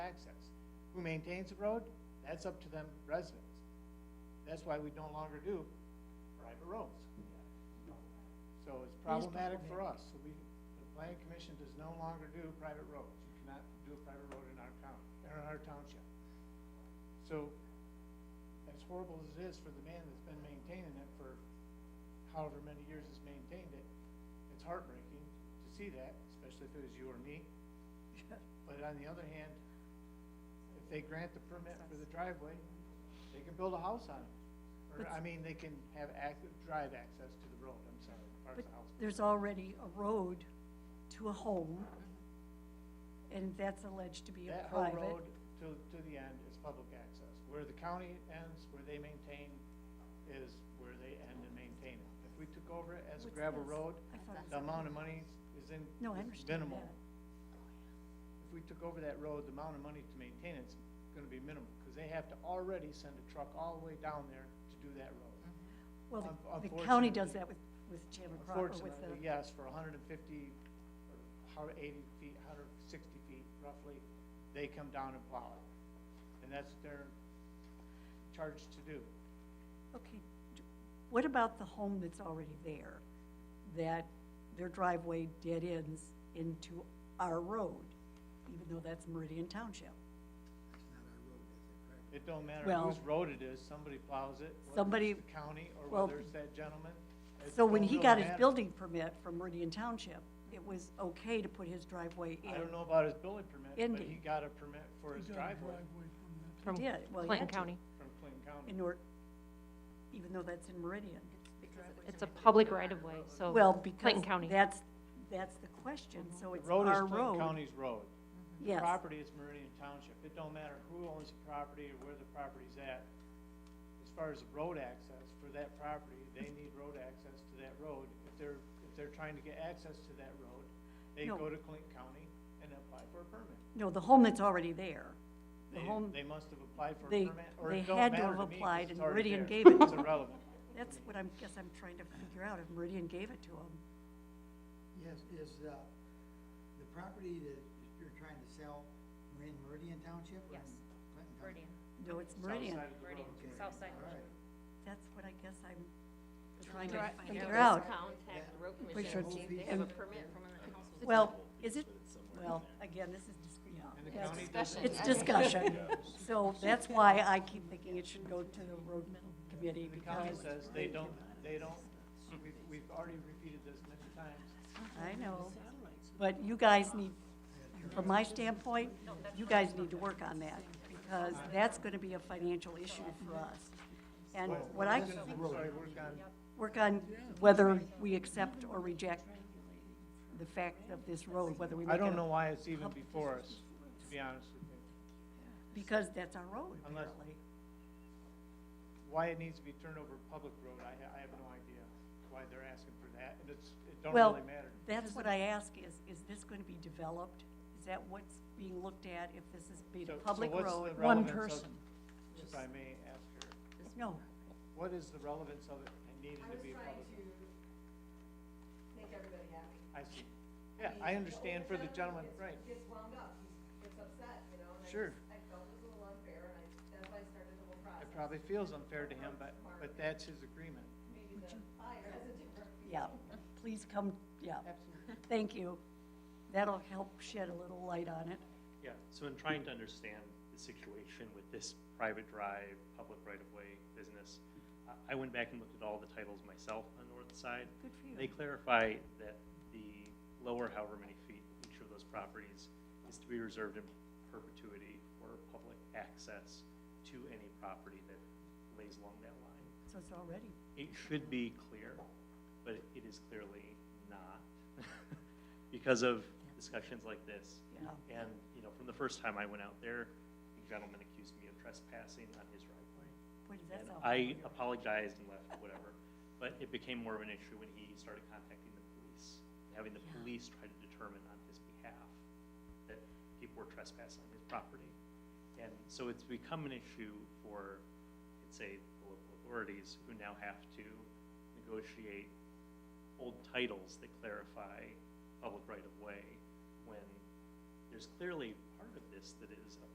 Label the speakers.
Speaker 1: Who maintains the road? That's up to them residents. That's why we no longer do private roads. So it's problematic for us. So we, the planning commission does no longer do private roads. You cannot do a private road in our county, or in our township. So as horrible as it is for the man that's been maintaining it for however many years has maintained it, it's heartbreaking to see that, especially if it was you or me. But on the other hand, if they grant the permit for the driveway, they can build a house on it. Or, I mean, they can have active, drive access to the road, I'm sorry, parts of
Speaker 2: But
Speaker 1: the house.
Speaker 2: there's already a road to a home, and that's alleged to be a
Speaker 1: That whole
Speaker 2: private.
Speaker 1: road to, to the end is public access. Where the county ends, where they maintain, is where they end and maintain it. If we took over it as a
Speaker 2: What's
Speaker 1: gravel
Speaker 2: this?
Speaker 1: road,
Speaker 2: I thought it
Speaker 1: the
Speaker 2: was-
Speaker 1: amount of money is in,
Speaker 2: No, I
Speaker 1: is
Speaker 2: understand
Speaker 1: minimal.
Speaker 2: that.
Speaker 1: If we took over that road, the amount of money to maintain it's gonna be minimal, because they have to already send a truck all the way down there to do that road.
Speaker 2: Hmm. Well,
Speaker 1: Un-
Speaker 2: the- the county does
Speaker 1: unfortunately-
Speaker 2: that with, with Chandler Cross, or with
Speaker 1: Unfortunately,
Speaker 2: the,
Speaker 1: yes, for hundred and fifty, or hundred eighty feet, hundred sixty feet roughly, they come down and plow it. And that's what they're charged to do.
Speaker 2: okay. d- What about the home that's already there, that their driveway dead ends into our road, even though that's Meridian Township?
Speaker 1: It don't matter
Speaker 2: Well-
Speaker 1: whose road it is, somebody plows it, whether
Speaker 2: Somebody-
Speaker 1: it's the county or
Speaker 2: well,
Speaker 1: whether it's that gentleman. It
Speaker 2: So when
Speaker 1: don't
Speaker 2: he
Speaker 1: really
Speaker 2: got his
Speaker 1: matter.
Speaker 2: building permit from Meridian Township, it was okay to put his driveway in.
Speaker 1: I don't know about his building permit, but he
Speaker 2: Ending.
Speaker 1: got a permit for his driveway
Speaker 3: from
Speaker 2: He did, well, he
Speaker 3: Clinton
Speaker 2: had to.
Speaker 3: County.
Speaker 1: from Clinton County.
Speaker 2: in or, even though that's in Meridian.
Speaker 3: It's a public right-of-way, so
Speaker 2: Well, because
Speaker 3: Clinton County.
Speaker 2: that's, that's the question, so
Speaker 1: The
Speaker 2: it's
Speaker 1: road is
Speaker 2: our
Speaker 1: Clinton
Speaker 2: road.
Speaker 1: County's road. The
Speaker 2: Yes,
Speaker 1: property is Meridian Township. It don't matter who owns the property or where the property's at. As far as the road access for that property, they need road access to that road. If they're, if they're trying to get access to that road, they
Speaker 2: No.
Speaker 1: go to Clinton County and apply for a permit.
Speaker 2: no, the home that's already there. The
Speaker 1: They,
Speaker 2: home,
Speaker 1: they must have applied for a
Speaker 2: they-
Speaker 1: permit, or
Speaker 2: they
Speaker 1: it don't
Speaker 2: had to
Speaker 1: matter
Speaker 2: have
Speaker 1: me 'cause it's
Speaker 2: applied and
Speaker 1: already
Speaker 2: Meridian
Speaker 1: there.
Speaker 2: gave it
Speaker 1: It's
Speaker 2: to 'em.
Speaker 1: irrelevant.
Speaker 2: that's what I'm, guess I'm trying to figure out, if Meridian gave it to them.
Speaker 4: Yes, is, uh, the property that you're trying to sell in Meridian Township? or in
Speaker 5: Yes.
Speaker 4: Clinton Township?
Speaker 5: Meridian,
Speaker 2: No, it's
Speaker 1: South
Speaker 2: Meridian,
Speaker 1: side of the
Speaker 5: Meridian,
Speaker 1: road.
Speaker 4: Okay,
Speaker 5: south side.
Speaker 4: All right.
Speaker 2: that's what I guess I'm trying to
Speaker 5: Dri-
Speaker 2: figure
Speaker 5: They're
Speaker 2: out.
Speaker 5: Contact the road
Speaker 2: sure
Speaker 5: commission,
Speaker 2: it's-
Speaker 5: see if they have a permit from the council.
Speaker 2: Well, is it, well, again, this is, just yeah.
Speaker 1: And the
Speaker 2: that's-
Speaker 1: county
Speaker 5: discussion.
Speaker 2: It's discussion, so that's why I keep thinking it should go to the road committee,
Speaker 1: The county
Speaker 2: because
Speaker 1: says they don't, they don't, we've, we've already repeated this many times.
Speaker 2: I know, but you guys need, from my standpoint, you guys need to work on that, because that's gonna be a financial issue for us. And what I,
Speaker 4: This is the road.
Speaker 1: Sorry, we're gone.
Speaker 2: work on whether we accept or reject the fact of this road, whether we make it.
Speaker 1: I don't know
Speaker 2: a-
Speaker 1: why it's even before us, to be honest with you.
Speaker 2: Because that's our road,
Speaker 1: Unless-
Speaker 2: apparently.
Speaker 1: Why it needs to be turned over public road, I, ha- I have no idea why they're asking for that, and it's, it don't
Speaker 2: Well,
Speaker 1: really matter.
Speaker 2: that's what I ask, is, is this gonna be developed? Is that what's being looked at, if this is being
Speaker 1: So-
Speaker 2: a
Speaker 1: so
Speaker 2: public
Speaker 1: what's the
Speaker 2: road? One
Speaker 1: relevance of-
Speaker 2: person.
Speaker 1: If I may ask her,
Speaker 2: No,
Speaker 1: what is the relevance of it and needed to be public?
Speaker 6: make everybody happy.
Speaker 1: I see. Yeah, I understand for the gentleman, right,
Speaker 6: He gets wound up, he gets upset, you know, and I
Speaker 1: Sure.
Speaker 6: just- I felt it was a little unfair, and I, that's why I started the whole
Speaker 1: it
Speaker 6: process.
Speaker 1: probably feels unfair to him, but, but that's his agreement.
Speaker 6: Maybe the buyer has a different view.
Speaker 2: yeah, please come, yeah,
Speaker 1: Absolutely.
Speaker 2: thank you. That'll help shed a little light on it.
Speaker 7: Yeah, so in trying to understand the situation with this private drive, public right-of-way business, I- I went back and looked at all the titles myself on the north side.
Speaker 2: Good for you.
Speaker 7: They clarify that the lower however many feet, each of those properties is to be reserved in perpetuity for public access to any property that lays along that line.
Speaker 2: So it's already,
Speaker 7: It should be clear, but it is clearly not because of discussions like this.
Speaker 2: yeah,
Speaker 7: And, you know, from the first time I went out there, a gentleman accused me of trespassing on his right of way.
Speaker 2: what does that
Speaker 7: And
Speaker 2: sound?
Speaker 7: I apologized and left, whatever. But it became more of an issue when he started contacting the police, having the police try to determine on his behalf that people were trespassing on his property. And so it's become an issue for, I'd say, the local authorities who now have to negotiate old titles that clarify public right-of-way when there's clearly part of this that is a